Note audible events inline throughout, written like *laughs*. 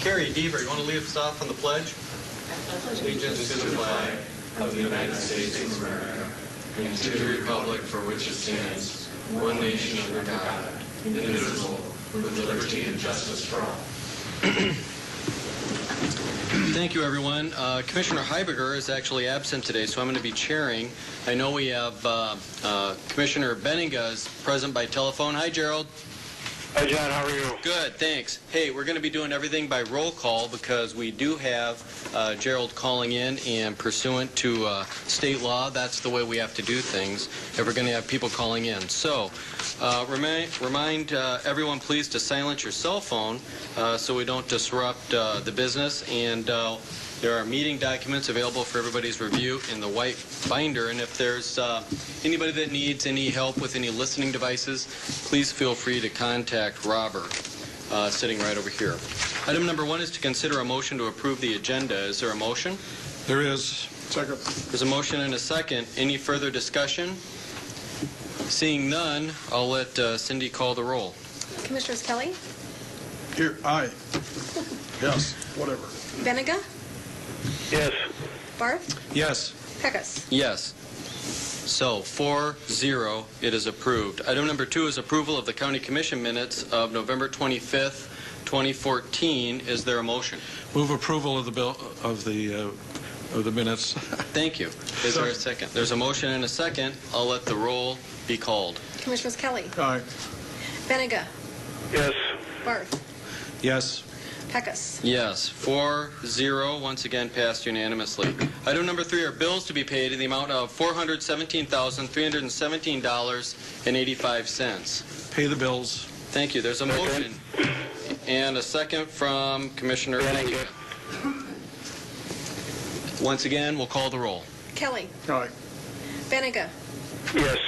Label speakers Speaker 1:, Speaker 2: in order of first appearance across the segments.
Speaker 1: Carrie Deaver, you want to lead us off on the pledge? Allegiance to the flag
Speaker 2: of the United States of America and to the republic for which it stands, one nation under God, indivisible, with liberty and justice for all.
Speaker 1: Thank you, everyone. Uh, Commissioner Heiberger is actually absent today, so I'm going to be chairing. I know we have uh, uh, Commissioner Benninga is present by telephone. Hi, Gerald.
Speaker 3: Hi, John, how are you?
Speaker 1: Good, thanks. Hey, we're going to be doing everything by roll call because we do have uh, Gerald calling in, and pursuant to uh, state law, that's the way we have to do things if we're going to have people calling in. So uh, remind, remind uh, everyone, please, to silence your cell phone uh, so we don't disrupt uh, the business. And uh, there are meeting documents available for everybody's review in the white binder. And if there's uh, anybody that needs any help with any listening devices, please feel free to contact Robert, uh, sitting right over here. Item number one is to consider a motion to approve the agenda. Is there a motion?
Speaker 4: There is. Second.
Speaker 1: There's a motion and a second. Any further discussion? Seeing none, I'll let uh, Cindy call the roll.
Speaker 5: Commissioners Kelly,
Speaker 4: Here, aye. Yes, whatever.
Speaker 5: Benega,
Speaker 3: Yes.
Speaker 5: Barth,
Speaker 4: Yes.
Speaker 5: Pecos.
Speaker 1: Yes. So, 4-0, it is approved. Item number two is approval of the county commission minutes of November 25th, 2014. Is there a motion?
Speaker 4: Move approval of the bill, of the, uh, of the minutes.
Speaker 1: Thank you. Is there a second? There's a motion and a second. I'll let the roll be called.
Speaker 5: Commissioners Kelly,
Speaker 4: Aye.
Speaker 5: Benega,
Speaker 3: Yes.
Speaker 5: Barth,
Speaker 4: Yes.
Speaker 5: Pecos.
Speaker 1: Yes, 4-0, once again passed unanimously. Item number three are bills to be paid in the amount of $417,317.85.
Speaker 4: Pay the bills.
Speaker 1: Thank you. There's a motion and a second from Commissioner Benega. Once again, we'll call the roll.
Speaker 5: Kelly,
Speaker 4: Aye.
Speaker 5: Benega,
Speaker 3: Yes.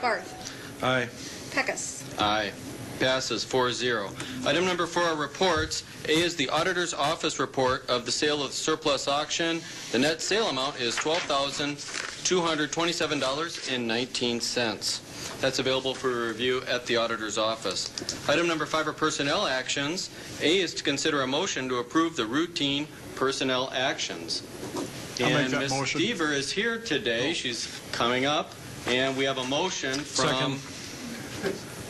Speaker 5: Barth,
Speaker 4: Aye.
Speaker 5: Pecos.
Speaker 1: Aye. Passes 4-0. Item number four are reports. A is the Auditor's Office report of the sale of surplus auction. The net sale amount is $12,227.19. That's available for review at the Auditor's Office. Item number five are personnel actions. A is to consider a motion to approve the routine personnel actions.
Speaker 4: I'll make
Speaker 1: And
Speaker 4: that
Speaker 1: Ms.
Speaker 4: motion.
Speaker 1: Deaver is here today. She's coming up, and we have a motion from
Speaker 4: Second.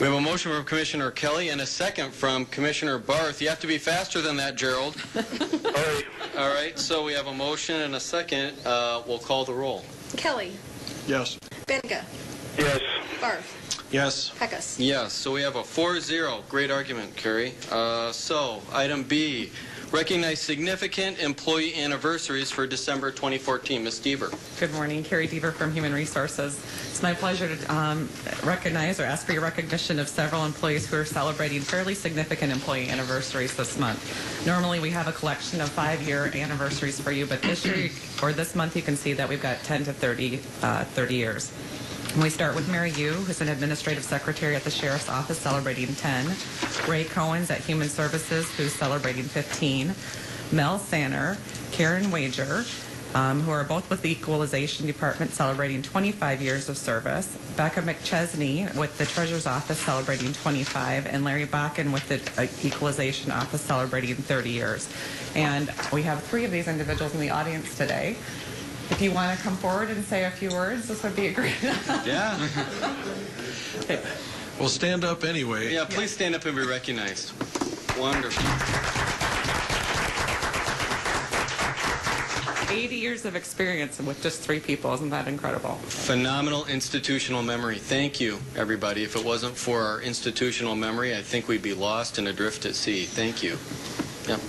Speaker 1: we have a motion from Commissioner Kelly and a second from Commissioner Barth. You have to be faster than that, Gerald.
Speaker 3: Aye.
Speaker 1: All right, so we have a motion and a second. Uh, We'll call the roll.
Speaker 5: Kelly,
Speaker 4: Yes.
Speaker 5: Benega,
Speaker 3: Yes.
Speaker 5: Barth,
Speaker 4: Yes.
Speaker 5: Pecos.
Speaker 1: Yes, so we have a 4-0. Great argument, Kerry. Uh, So, item B, recognize significant employee anniversaries for December 2014. Ms. Deaver.
Speaker 6: Good morning, Carrie Deaver from Human Resources. It's my pleasure to um, recognize or ask for your recognition of several employees who are celebrating fairly significant employee anniversaries this month. Normally, we have a collection of five-year anniversaries for you, but this year or this month, you can see that we've got 10 to 30, uh, 30 years. And we start with Mary Yu, who's an administrative secretary at the Sheriff's Office, celebrating 10. Ray Cohen's at Human Services, who's celebrating 15. Mel Sanner, Karen Wager, um, who are both with the Equalization Department, celebrating 25 years of service. Becca McChesney with the Treasurer's Office, celebrating 25. And Larry Bakken with the uh, Equalization Office, celebrating 30 years. And we have three of these individuals in the audience today. If you want to come forward and say a few words, this would be a great *laughs*
Speaker 1: Yeah.
Speaker 4: Well, stand up anyway.
Speaker 1: Yeah, please stand up and be recognized. Wonderful.
Speaker 6: 80 years of experience with just three people. Isn't that incredible?
Speaker 1: Phenomenal institutional memory. Thank you, everybody. If it wasn't for our institutional memory, I think we'd be lost and adrift at sea. Thank you. Yep.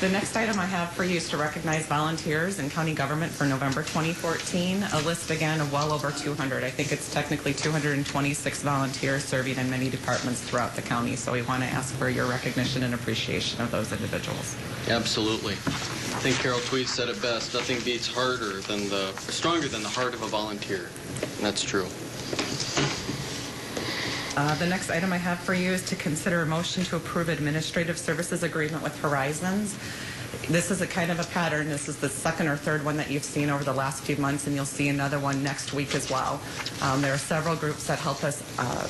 Speaker 6: The next item I have for you is to recognize volunteers in county government for November 2014. A list again of well over 200. I think it's technically 226 volunteers serving in many departments throughout the county. So we want to ask for your recognition and appreciation of those individuals.
Speaker 1: Absolutely. I think Carol Tweed said it best. Nothing beats harder than the, stronger than the heart of a volunteer. And that's true.
Speaker 6: Uh, The next item I have for you is to consider a motion to approve administrative services agreement with Horizons. This is a kind of a pattern. This is the second or third one that you've seen over the last few months, and you'll see another one next week as well. Um, There are several groups that help us uh,